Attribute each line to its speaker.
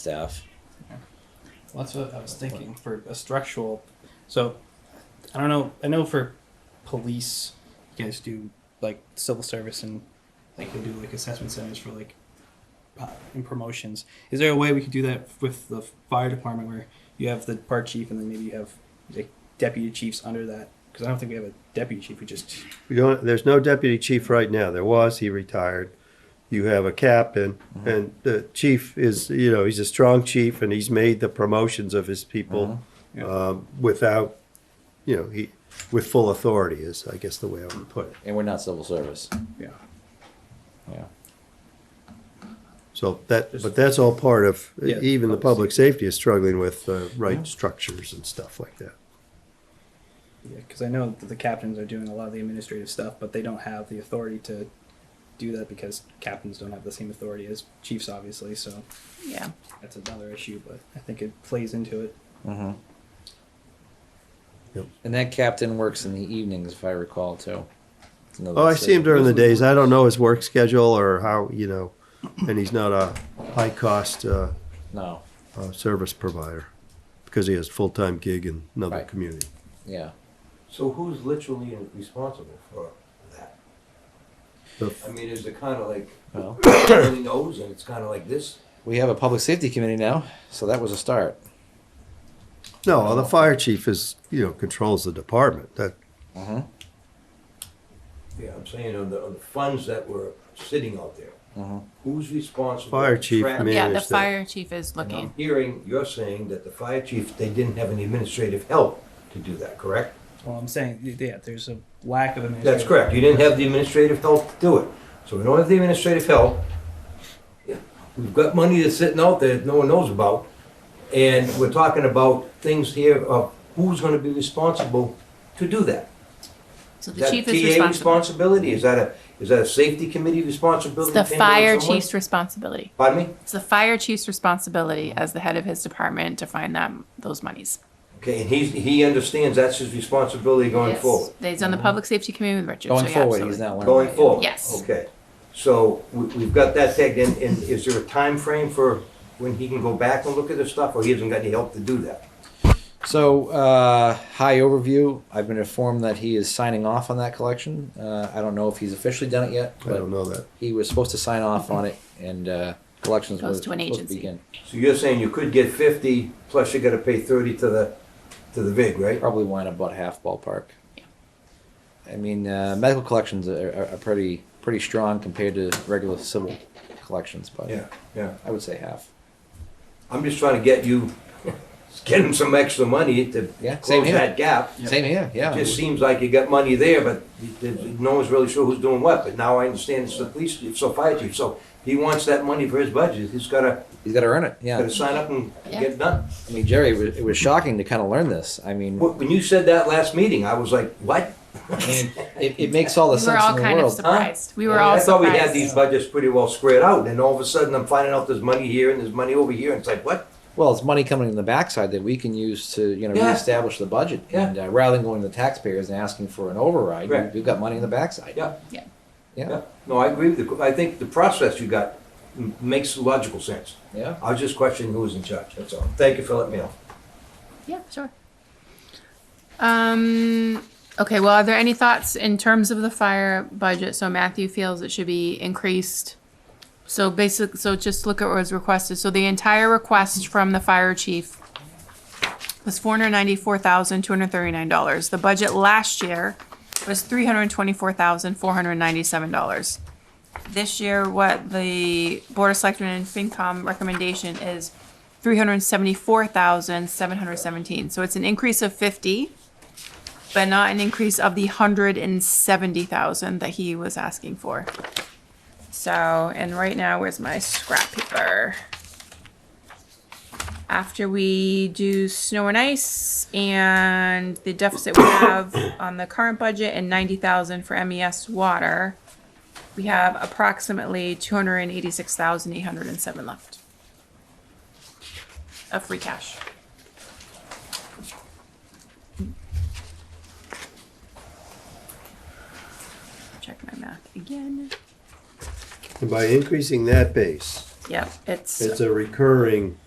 Speaker 1: staff.
Speaker 2: Well, that's what I was thinking for a structural. So, I don't know. I know for police, you guys do like civil service and like you do like assessment centers for like uh, and promotions. Is there a way we could do that with the fire department where you have the part chief and then maybe you have like deputy chiefs under that? Because I don't think we have a deputy chief. We just
Speaker 3: We don't, there's no deputy chief right now. There was, he retired. You have a captain,
Speaker 2: Mm-hmm.
Speaker 3: and the chief is, you know, he's a strong chief, and he's made the promotions of his people
Speaker 2: Mhm. Yeah.
Speaker 3: um, without, you know, he with full authority is, I guess, the way I would put it.
Speaker 1: And we're not civil service.
Speaker 3: Yeah.
Speaker 1: Yeah.
Speaker 3: So that, but that's all part of
Speaker 2: Yeah,
Speaker 3: even the
Speaker 2: public
Speaker 3: public safety is struggling with uh, right structures and stuff like that.
Speaker 2: because I know that the captains are doing a lot of the administrative stuff, but they don't have the authority to do that because captains don't have the same authority as chiefs, obviously. So.
Speaker 4: Yeah.
Speaker 2: that's another issue, but I think it plays into it.
Speaker 1: Mm-hmm.
Speaker 3: Yep.
Speaker 1: And that captain works in the evenings, if I recall, too. It's another
Speaker 3: Oh, I see him
Speaker 1: city.
Speaker 3: during the days. I don't know his work schedule or how, you know, and he's not a high cost uh,
Speaker 1: No.
Speaker 3: uh, service provider because he has full time gig in another
Speaker 1: Right.
Speaker 3: community.
Speaker 1: Yeah.
Speaker 5: So who's literally responsible for that?
Speaker 3: The-
Speaker 5: I mean, is it kind of like,
Speaker 1: Well,
Speaker 5: really knows and it's kind of like this?
Speaker 1: we have a public safety committee now, so that was a start.
Speaker 3: no, the fire chief is you know controls the department. That
Speaker 1: Mm-hmm.
Speaker 5: Yeah, I'm saying on the, on the funds that were sitting out there.
Speaker 1: Mhm.
Speaker 5: Who's responsible?
Speaker 3: Fire
Speaker 5: for
Speaker 3: chief
Speaker 5: tracking?
Speaker 3: may-
Speaker 4: Yeah, the
Speaker 3: Manage that.
Speaker 4: fire chief is
Speaker 5: And I'm
Speaker 4: looking.
Speaker 5: Hearing, you're saying that the fire chief, they didn't have any administrative help to do that, correct?
Speaker 2: Well, I'm saying, yeah, there's a lack of administration.
Speaker 5: That's correct. You didn't have the administrative help to do it. So we don't have the administrative help. We've got money that's sitting out there that no one knows about. And we're talking about things here of who's gonna be responsible to do that.
Speaker 4: So
Speaker 5: Is
Speaker 4: the
Speaker 5: that
Speaker 4: chief is
Speaker 5: TA
Speaker 4: responsible.
Speaker 5: responsibility? Is that a, is that a safety committee
Speaker 4: It's
Speaker 5: responsibility?
Speaker 4: the
Speaker 5: depending on
Speaker 4: fire
Speaker 5: someone?
Speaker 4: chief's responsibility.
Speaker 5: Pardon me?
Speaker 4: It's the fire chief's responsibility as the head of his department to find that those monies.
Speaker 5: Okay, and he's, he understands that's his responsibility going
Speaker 4: Yes.
Speaker 5: forward.
Speaker 4: He's on the public safety committee with Richard.
Speaker 1: Mm-hmm. Going
Speaker 4: so yeah,
Speaker 1: forward,
Speaker 4: absolutely.
Speaker 1: he's not learning.
Speaker 5: Going forward?
Speaker 4: Yes.
Speaker 5: Okay. So we- we've got that tagged in, and is there a time frame for when he can go back and look at this stuff, or he hasn't got any help to do that?
Speaker 1: So, uh, high overview. I've been informed that he is signing off on that collection. Uh, I don't know if he's officially done it yet,
Speaker 3: I
Speaker 1: but
Speaker 3: don't know that.
Speaker 1: he was supposed to sign off on it, and uh, collections
Speaker 4: Goes
Speaker 1: was
Speaker 4: to an
Speaker 1: supposed
Speaker 4: agency.
Speaker 1: begin.
Speaker 5: So you're saying you could get fifty, plus you gotta pay thirty to the, to the VIG, right?
Speaker 1: Probably wind up about half ballpark.
Speaker 4: Yeah.
Speaker 1: I mean, uh, medical collections are, are, are pretty pretty strong compared to regular civil collections, but
Speaker 5: Yeah, yeah.
Speaker 1: I would say half.
Speaker 5: I'm just trying to get you, get him some extra money to
Speaker 1: Yeah, same
Speaker 5: close
Speaker 1: here.
Speaker 5: that gap.
Speaker 1: Same here, yeah.
Speaker 5: It just seems like you got money there, but th- th- no one's really sure who's doing what, but now I understand it's the police, chief, so fire chief, so he wants that money for his budget, he's gotta,
Speaker 1: He's got to earn it. Yeah.
Speaker 5: gotta sign up and
Speaker 4: Yeah.
Speaker 5: get it done.
Speaker 1: I mean, Jerry, it was, it was shocking to kind of learn this. I mean,
Speaker 5: Wh- When you said that last meeting, I was like, what?
Speaker 1: I mean, it, it makes all the
Speaker 4: We were
Speaker 1: sense
Speaker 4: all
Speaker 1: in the
Speaker 4: kind of
Speaker 1: world.
Speaker 4: surprised. We were
Speaker 5: I mean,
Speaker 4: all
Speaker 5: I thought we had these
Speaker 4: surprised.
Speaker 5: budgets pretty well squared out, and all of a sudden, I'm finding out there's money here and there's money over here, and it's like, what?
Speaker 1: well, it's money coming in the backside that we can use to you know
Speaker 5: Yeah.
Speaker 1: reestablish the budget,
Speaker 5: Yeah.
Speaker 1: and uh, rather than going to the taxpayers and asking for an override,
Speaker 5: Right.
Speaker 1: we've got money in the backside.
Speaker 5: Yeah.
Speaker 4: Yeah.
Speaker 1: Yeah.
Speaker 5: Yeah. No, I agree with you, I think the process you got m- makes logical sense.
Speaker 1: Yeah.
Speaker 5: I was just questioning who was in charge, that's all. Thank you for letting me know.
Speaker 4: Yeah, sure. Um, okay, well, are there any thoughts in terms of the fire budget? So Matthew feels it should be increased. So basic, so just look at what was requested. So the entire request from the fire chief was four hundred ninety-four thousand, two hundred thirty-nine dollars. The budget last year was three hundred twenty-four thousand, four hundred ninety-seven dollars. This year, what the Board of Selectmen and FinCom recommendation is three hundred seventy-four thousand, seven hundred seventeen. So it's an increase of fifty, but not an increase of the hundred and seventy thousand that he was asking for. So, and right now, where's my scrap paper? After we do snow and ice and the deficit we have on the current budget and ninety thousand for MES water, we have approximately two hundred and eighty-six thousand eight hundred and seven left of free cash. Check my math again.
Speaker 3: And by increasing that base,
Speaker 4: Yep, it's,
Speaker 3: it's a recurring